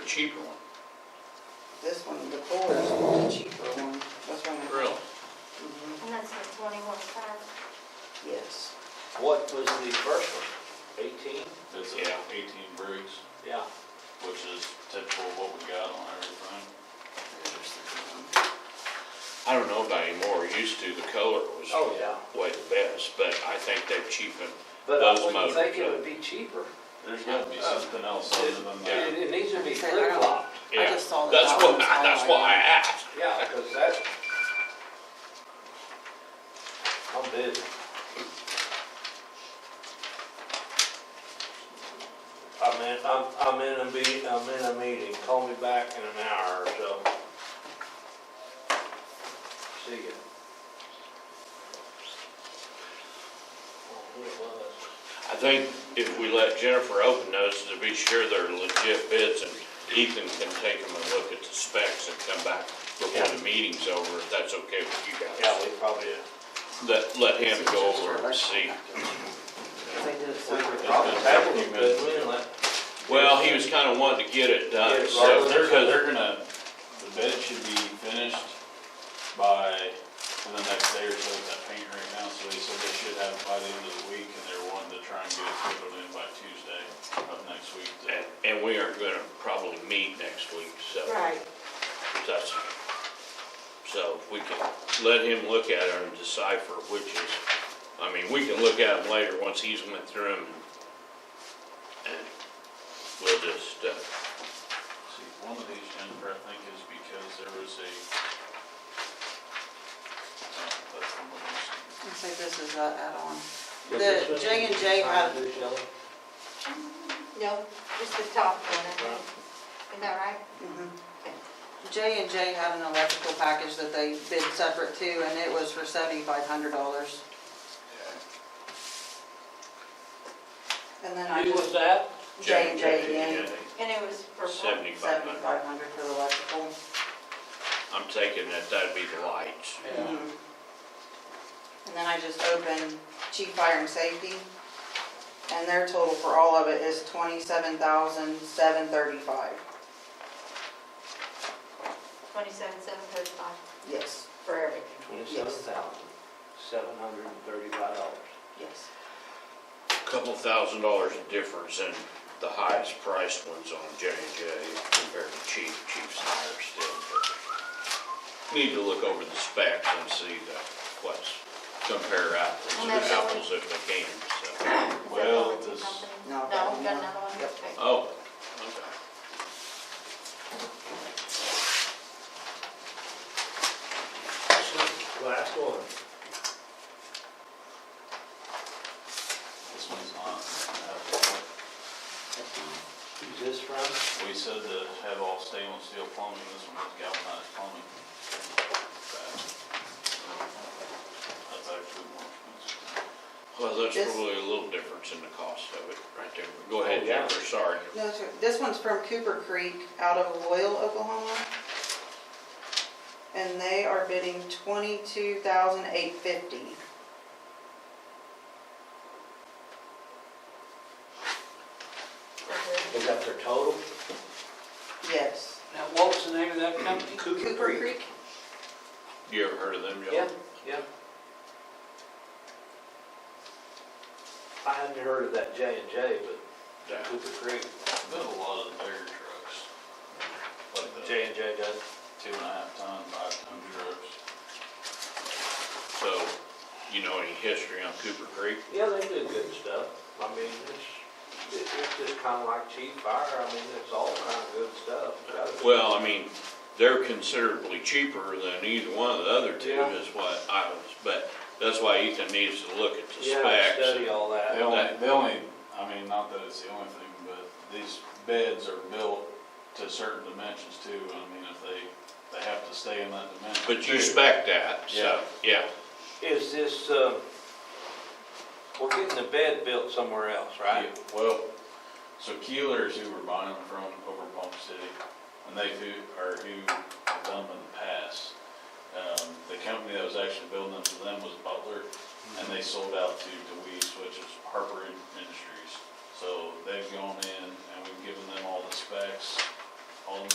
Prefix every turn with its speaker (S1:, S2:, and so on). S1: cheaper one.
S2: This one, the Ford, is the cheaper one. That's one. I-
S1: Really?
S2: Mhm,
S3: And that's the twenty-one five.
S2: Yes.
S4: What was the first one? Eighteen?
S5: It's
S1: Yeah.
S5: a eighteen breeze,
S4: Yeah.
S5: which is typical of what we got on everything.
S1: I don't know about anymore, used to, the color was
S4: Oh, yeah.
S1: way the best, but I think they've cheapened
S4: But I
S1: Those
S4: wouldn't
S1: motors,
S4: think it
S1: yeah.
S4: would be cheaper.
S5: There's gotta be something else other than
S4: It,
S5: that.
S4: it needs to be
S2: Say that.
S4: flip-flopped,
S1: Yeah,
S2: just saw that
S1: That's
S2: that
S1: what,
S2: one's
S1: I- that's
S2: highlighted.
S1: why I asked.
S4: yeah, because that, I'm busy. I'm in, I'm, I'm in a meet, I'm in a meeting, call me back in an hour or so. See ya. Oh, who it was?
S1: I think if we let Jennifer open those to be sure they're legit bids and Ethan can take them and look at the specs and come back before the meeting's over, if that's okay with you
S4: Yeah,
S1: guys.
S4: we probably,
S1: Let, let him go over and see.
S2: They did it so.
S4: we were probably having a good win last
S1: Well, he was kinda wanting to get it done, so,
S5: So they're,
S1: because,
S5: they're gonna, the bed should be finished by, in the next day or so with that paint right now, so they said they should have it by the end of the week, and they're wanting to try and get it scheduled in by Tuesday of next week. so.
S1: and, and we aren't gonna probably meet next week, so.
S3: Right.
S1: That's, so if we can let him look at it and decipher which is, I mean, we can look at them later once he's went through them. And we'll just, uh,
S5: See, one of these, Jennifer, I think is because there was a. uh, that's the one that's-
S2: Let's say this is that add-on. The
S4: Yeah, this was-
S2: J and J had-
S4: Sign this yellow.
S3: No, just the top one, I think. Is that right?
S2: J and J had an electrical package that they bid separate too, and it was for seventy-five hundred dollars. And then I
S4: Who was
S2: just,
S4: that?
S2: J and J again,
S1: J&J,
S3: And it was for. what?
S1: Seventy-five hundred.
S2: seventy-five hundred for the electrical.
S1: I'm taking that that'd be the lights.
S2: Mhm. And then I just opened chief fire and safety, and their total for all of it is twenty-seven thousand, seven thirty-five.
S3: Twenty-seven, seven thirty-five
S2: Yes,
S3: for everything.
S4: Twenty-seven thousand, seven hundred and thirty-five dollars.
S2: yes.
S1: Couple thousand dollars of difference in the highest priced ones on J and J compared to cheap, cheap's higher still. but Need to look over the specs and see the, what's, compare apples
S3: Well,
S1: to
S3: that's all.
S1: apples if they can, so.
S3: Is that the
S5: Well,
S3: only two
S5: this-
S3: companies?
S2: No,
S3: No,
S2: that
S3: we've got
S2: one.
S3: another one.
S2: Yep.
S3: Okay.
S1: Oh, okay.
S4: Last one.
S5: This one's not.
S4: Who's this from?
S5: We said to have all stainless steel plumbing, this one was galvanized plumbing. That's actually more expensive.
S1: Well, that's
S2: This-
S1: probably a little difference in the cost of it right there. Go
S4: Oh,
S1: ahead,
S4: yeah.
S1: Jennifer, sorry.
S2: No, sir, this one's from Cooper Creek out of Loyal, Oklahoma. And they are bidding twenty-two thousand eight fifty.
S3: For
S4: Is that their total?
S2: Yes.
S4: Now, what was the name of that company?
S2: Cooper Creek?
S1: You ever heard of them, Joe?
S4: Yeah, yeah. I hadn't heard of that J and J, but
S1: Yeah.
S4: Cooper Creek,
S5: Built a lot of the bigger trucks. Like the
S4: J and J does.
S5: two and a half ton, five ton trucks.
S1: So, you know any history on Cooper Creek?
S4: Yeah, they do good stuff. I mean, it's, it- it's just kind of like cheap fire. I mean, it's all kind of good stuff.
S1: Well, I mean, they're considerably cheaper than either one of the other two
S4: Yeah.
S1: is what I was, but that's why Ethan needs to look at the
S4: Yeah, study
S1: specs.
S4: all that.
S5: They only, they only, I mean, not that it's the only thing, but these beds are built to certain dimensions too. I mean, if they, they have to stay in that dimension.
S1: But you
S5: too.
S1: spec that, so, yeah.
S4: Is this, uh, we're getting the bed built somewhere else, right?
S5: Yeah, Well, so Keeler's who we're buying them from over in Palm City, and they who, are who have done them in the past. Um, the company that was actually building them for them was Butler, and they sold out to DeWeese, which is Harper Industries. So they've gone in and we've given them all the specs,